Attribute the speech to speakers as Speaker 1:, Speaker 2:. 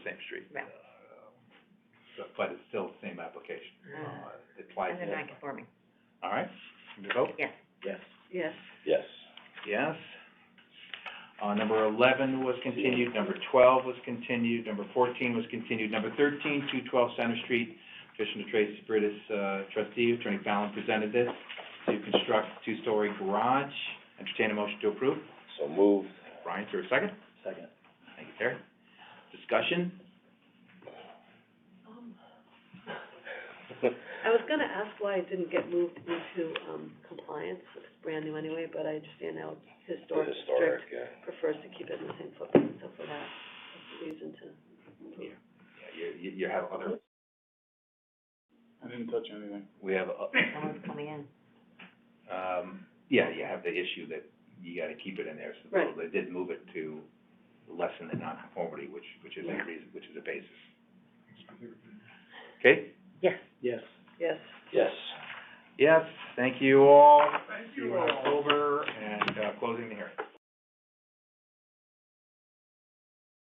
Speaker 1: Yeah.
Speaker 2: So, Um, but it's still the same application,
Speaker 1: Uh,
Speaker 2: uh, it applies
Speaker 1: And
Speaker 2: to
Speaker 1: they're
Speaker 2: that.
Speaker 1: non-conforming,
Speaker 2: All right, can we vote?
Speaker 1: yes.
Speaker 3: Yes.
Speaker 1: Yes.
Speaker 3: Yes.
Speaker 2: Yes. Uh, number eleven was continued, number twelve was continued, number fourteen was continued, number thirteen, two twelve Center Street. Petition to Tracy Britis, uh, trustee, Attorney Fallon presented this, to construct two-story garage. Entertain a motion to approve.
Speaker 3: So moved.
Speaker 2: Brian, is there a second?
Speaker 3: Second.
Speaker 2: Thank you, Terry. Discussion?
Speaker 4: I was gonna ask why it didn't get moved into, um, compliance, it's brand new anyway, but I understand now historic
Speaker 3: Historic,
Speaker 4: district
Speaker 3: yeah.
Speaker 4: prefers to keep it in the same footprint, so for that, that's the reason to.
Speaker 2: Yeah, you, you, you have other,
Speaker 5: I didn't touch anything.
Speaker 2: we have, uh,
Speaker 1: Someone's coming in.
Speaker 2: um, yeah, you have the issue that you gotta keep it in there. so
Speaker 4: Right.
Speaker 2: They did move it to lessen the nonconformity, which, which is a
Speaker 1: Yeah.
Speaker 2: reason, which is a basis. Okay?
Speaker 1: Yes.
Speaker 3: Yes.
Speaker 4: Yes.
Speaker 3: Yes.
Speaker 2: Yes, thank you all. Thank you all. Over and, uh, closing the hearing.